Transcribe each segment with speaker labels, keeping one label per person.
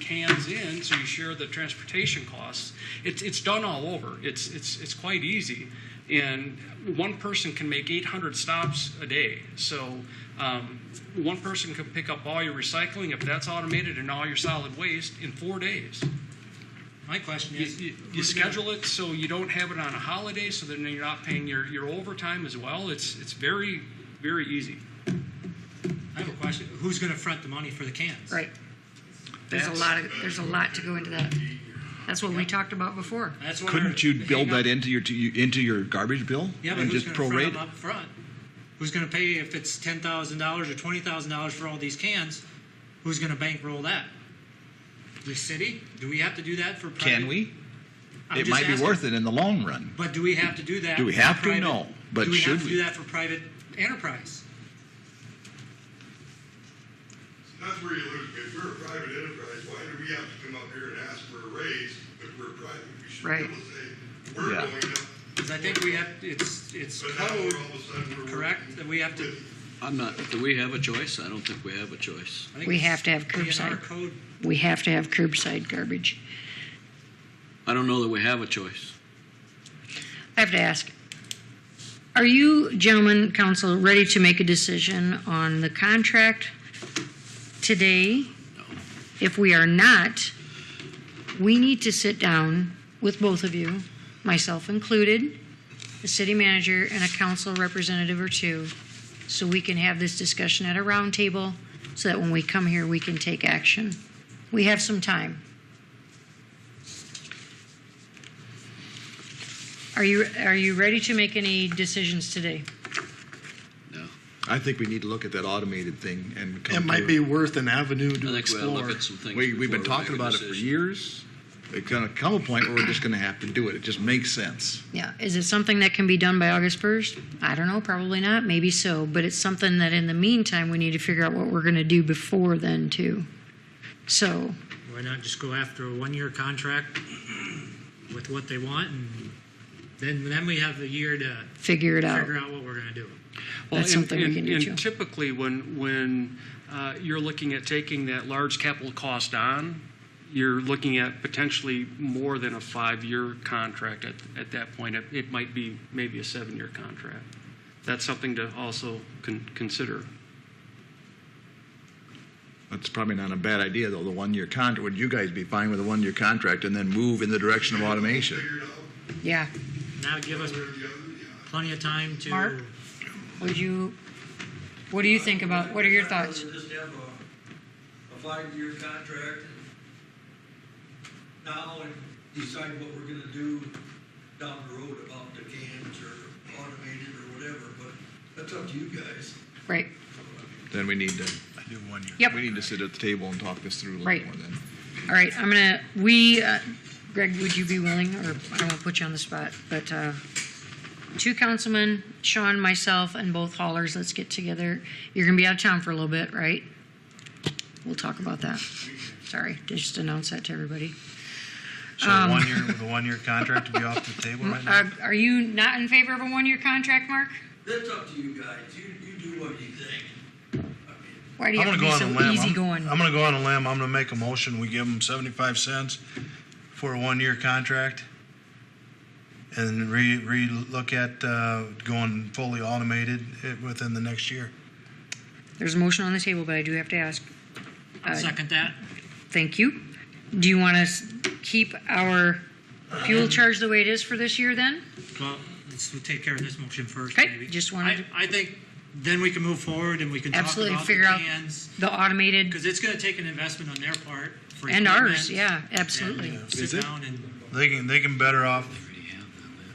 Speaker 1: cans in, so you share the transportation costs. It's, it's done all over. It's, it's, it's quite easy. And one person can make 800 stops a day. So um, one person can pick up all your recycling, if that's automated, and all your solid waste in four days.
Speaker 2: My question
Speaker 1: You,
Speaker 2: is.
Speaker 1: you,
Speaker 2: we're
Speaker 1: you
Speaker 2: gonna-
Speaker 1: schedule it so you don't have it on a holiday, so then you're not paying your, your overtime as well. It's, it's very, very easy.
Speaker 2: I have a question. Who's going to front the money for the cans?
Speaker 3: Right. There's a
Speaker 1: That's-
Speaker 3: lot of, there's a lot to go into that. That's what we talked about before.
Speaker 2: That's what.
Speaker 4: Couldn't
Speaker 2: we're-
Speaker 4: you build that into your to you- into your garbage bill
Speaker 2: Yeah, but
Speaker 4: and
Speaker 2: who's
Speaker 4: just
Speaker 2: going to
Speaker 4: prorate?
Speaker 2: front
Speaker 4: it?
Speaker 2: them up front? Who's going to pay if it's ten thousand dollars or twenty thousand dollars for all these cans? Who's going to bankroll that? The city? Do we have to do that for? Private?
Speaker 4: Can we?
Speaker 2: I'm
Speaker 4: It
Speaker 2: just
Speaker 4: might be
Speaker 2: asking.
Speaker 4: worth it in the long run.
Speaker 2: But do we have to do that?
Speaker 4: Do we
Speaker 2: for
Speaker 4: have to?
Speaker 2: private-
Speaker 4: No. But
Speaker 2: do we
Speaker 4: should
Speaker 2: have to
Speaker 4: we?
Speaker 2: do that for private enterprise?
Speaker 5: That's where you lose, if we're a private enterprise, why do we have to come up here and ask for a raise if we're private? We should be
Speaker 3: Right.
Speaker 5: able to say, we're
Speaker 4: Yeah.
Speaker 5: going up,
Speaker 2: Because I think we have. It's it's
Speaker 5: but now we're
Speaker 2: code.
Speaker 5: all of a sudden we're.
Speaker 2: Correct. That we have to.
Speaker 6: I'm not, do we have a choice? I don't think we have a choice.
Speaker 2: I think
Speaker 3: We
Speaker 2: it's
Speaker 3: have to have
Speaker 2: DNR
Speaker 3: curbside.
Speaker 2: code.
Speaker 3: We have to have curbside garbage.
Speaker 6: I don't know that we have a choice.
Speaker 3: I have to ask, are you gentlemen, council, ready to make a decision on the contract today? If we are not, we need to sit down with both of you, myself included, the city manager, and a council representative or two, so we can have this discussion at a roundtable, so that when we come here, we can take action. We have some time. Are you, are you ready to make any decisions today?
Speaker 6: No.
Speaker 4: I think we need to look at that automated thing and come
Speaker 7: It
Speaker 4: to
Speaker 7: might be worth an avenue
Speaker 6: I
Speaker 7: to
Speaker 6: think we ought to
Speaker 7: explore.
Speaker 6: look at some things.
Speaker 4: We, we've been
Speaker 6: before we
Speaker 4: talking
Speaker 6: make a
Speaker 4: about it for
Speaker 6: decision.
Speaker 4: years. It's going to come a point where we're just going to have to do it. It just makes sense.
Speaker 3: Yeah, is it something that can be done by August 1st? I don't know, probably not, maybe so, but it's something that in the meantime, we need to figure out what we're going to do before then too. So,
Speaker 2: Why not just go after a one-year contract with what they want, and then then we have a year to
Speaker 3: figure it out.
Speaker 2: figure out what we're going to do.
Speaker 1: Well,
Speaker 3: That's
Speaker 1: and-
Speaker 3: something we
Speaker 1: and-
Speaker 3: can do, too.
Speaker 1: And typically, when, when uh, you're looking at taking that large capital cost on, you're looking at potentially more than a five-year contract at, at that point. It- It might be maybe a seven-year contract. That's something to also con- consider.
Speaker 4: That's probably not a bad idea, though, the one-year contract. Would you guys be fine with a one-year contract and then move in the direction of automation?
Speaker 5: Figured out
Speaker 3: Yeah,
Speaker 2: Now give us
Speaker 5: where the other, yeah.
Speaker 2: plenty of time to.
Speaker 3: Mark? would you, what do you think about, what are your thoughts?
Speaker 8: I'd rather just have a, a five-year contract now and decide what we're gonna do down the road about the cans or automated or whatever, but that's up to you guys.
Speaker 3: Right,
Speaker 4: Then we need to. do one year.
Speaker 3: Yep.
Speaker 4: We need to sit at the table and talk this through a little
Speaker 3: Right.
Speaker 4: more then.
Speaker 3: all right, I'm going to, we, uh, Greg, would you be willing, or I won't put you on the spot, but uh, two councilmen, Sean, myself, and both haulers, let's get together. You're going to be out of town for a little bit, right? We'll talk about that. Sorry, just announce that to everybody.
Speaker 9: So
Speaker 3: Um,
Speaker 9: the one year, the one year contract to be off the table right now?
Speaker 3: Uh, Are you not in favor of a one-year contract, Mark?
Speaker 8: That's up to you guys. You, you do what you think. I mean,
Speaker 3: Why do you
Speaker 9: I'm
Speaker 3: have
Speaker 9: gonna
Speaker 3: to
Speaker 9: go
Speaker 3: be
Speaker 9: on a
Speaker 3: so
Speaker 9: limb.
Speaker 3: easygoing?
Speaker 9: I'm I'm gonna go on a limb. I'm gonna make a motion. We give them seventy-five cents for a one-year contract. And re, re-look at, uh, going fully automated eh, within the next year.
Speaker 3: There's a motion on the table, but I do have to ask. Uh,
Speaker 2: Second that.
Speaker 3: Thank you. Do you want to keep our fuel charge the way it is for this year then?
Speaker 2: Well, let's we'll take care of this motion first,
Speaker 3: Okay,
Speaker 2: maybe.
Speaker 3: just wanted
Speaker 2: I, I think then we can move forward and we can
Speaker 3: Absolutely,
Speaker 2: talk about
Speaker 3: figure
Speaker 2: the
Speaker 3: out-
Speaker 2: cans
Speaker 3: The automated
Speaker 2: because it's going to take an investment on their part for
Speaker 3: and
Speaker 2: equipment,
Speaker 3: ours, yeah,
Speaker 2: and
Speaker 3: absolutely.
Speaker 2: Sit
Speaker 4: Is it?
Speaker 2: down and
Speaker 9: They can, they can better off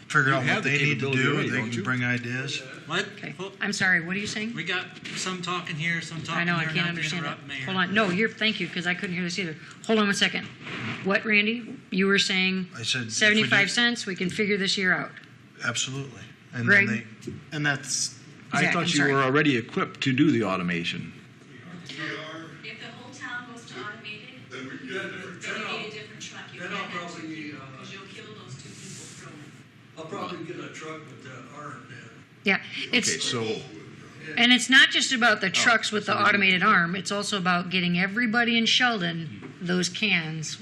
Speaker 9: figure
Speaker 4: You
Speaker 9: out
Speaker 4: have
Speaker 9: what
Speaker 4: the
Speaker 9: they need to
Speaker 4: capability
Speaker 9: do.
Speaker 4: already,
Speaker 9: They
Speaker 4: don't you?
Speaker 9: can bring ideas.
Speaker 2: what?
Speaker 3: Okay,
Speaker 2: Well,
Speaker 3: I'm sorry, what are you saying?
Speaker 2: We got some talking here, some talking
Speaker 3: I know, I
Speaker 2: there,
Speaker 3: can't
Speaker 2: not to
Speaker 3: understand that.
Speaker 2: interrupt, Mayor.
Speaker 3: Hold on, no, you're, thank you, because I couldn't hear this either. Hold on one second. What, Randy? You were saying
Speaker 9: I said. if we do-
Speaker 3: 75 cents, we can figure this year out.
Speaker 9: Absolutely. And
Speaker 3: Greg?
Speaker 9: then they,
Speaker 7: And that's,
Speaker 3: Zach,
Speaker 4: I
Speaker 3: I'm
Speaker 4: thought you
Speaker 3: sorry.
Speaker 4: were already equipped to do the automation.
Speaker 10: If the whole town goes to automated,
Speaker 5: Then we get a different
Speaker 10: then you need a different truck. You
Speaker 8: Then
Speaker 10: can't
Speaker 8: I'll
Speaker 10: have two
Speaker 8: probably,
Speaker 10: people,
Speaker 8: uh,
Speaker 10: because you'll kill those two people from.
Speaker 8: I'll probably get a truck with that arm then.
Speaker 3: Yeah, it's.
Speaker 4: Okay, so
Speaker 9: Oh,
Speaker 3: And it's not just about the trucks with the automated arm, it's also about getting everybody in Sheldon those cans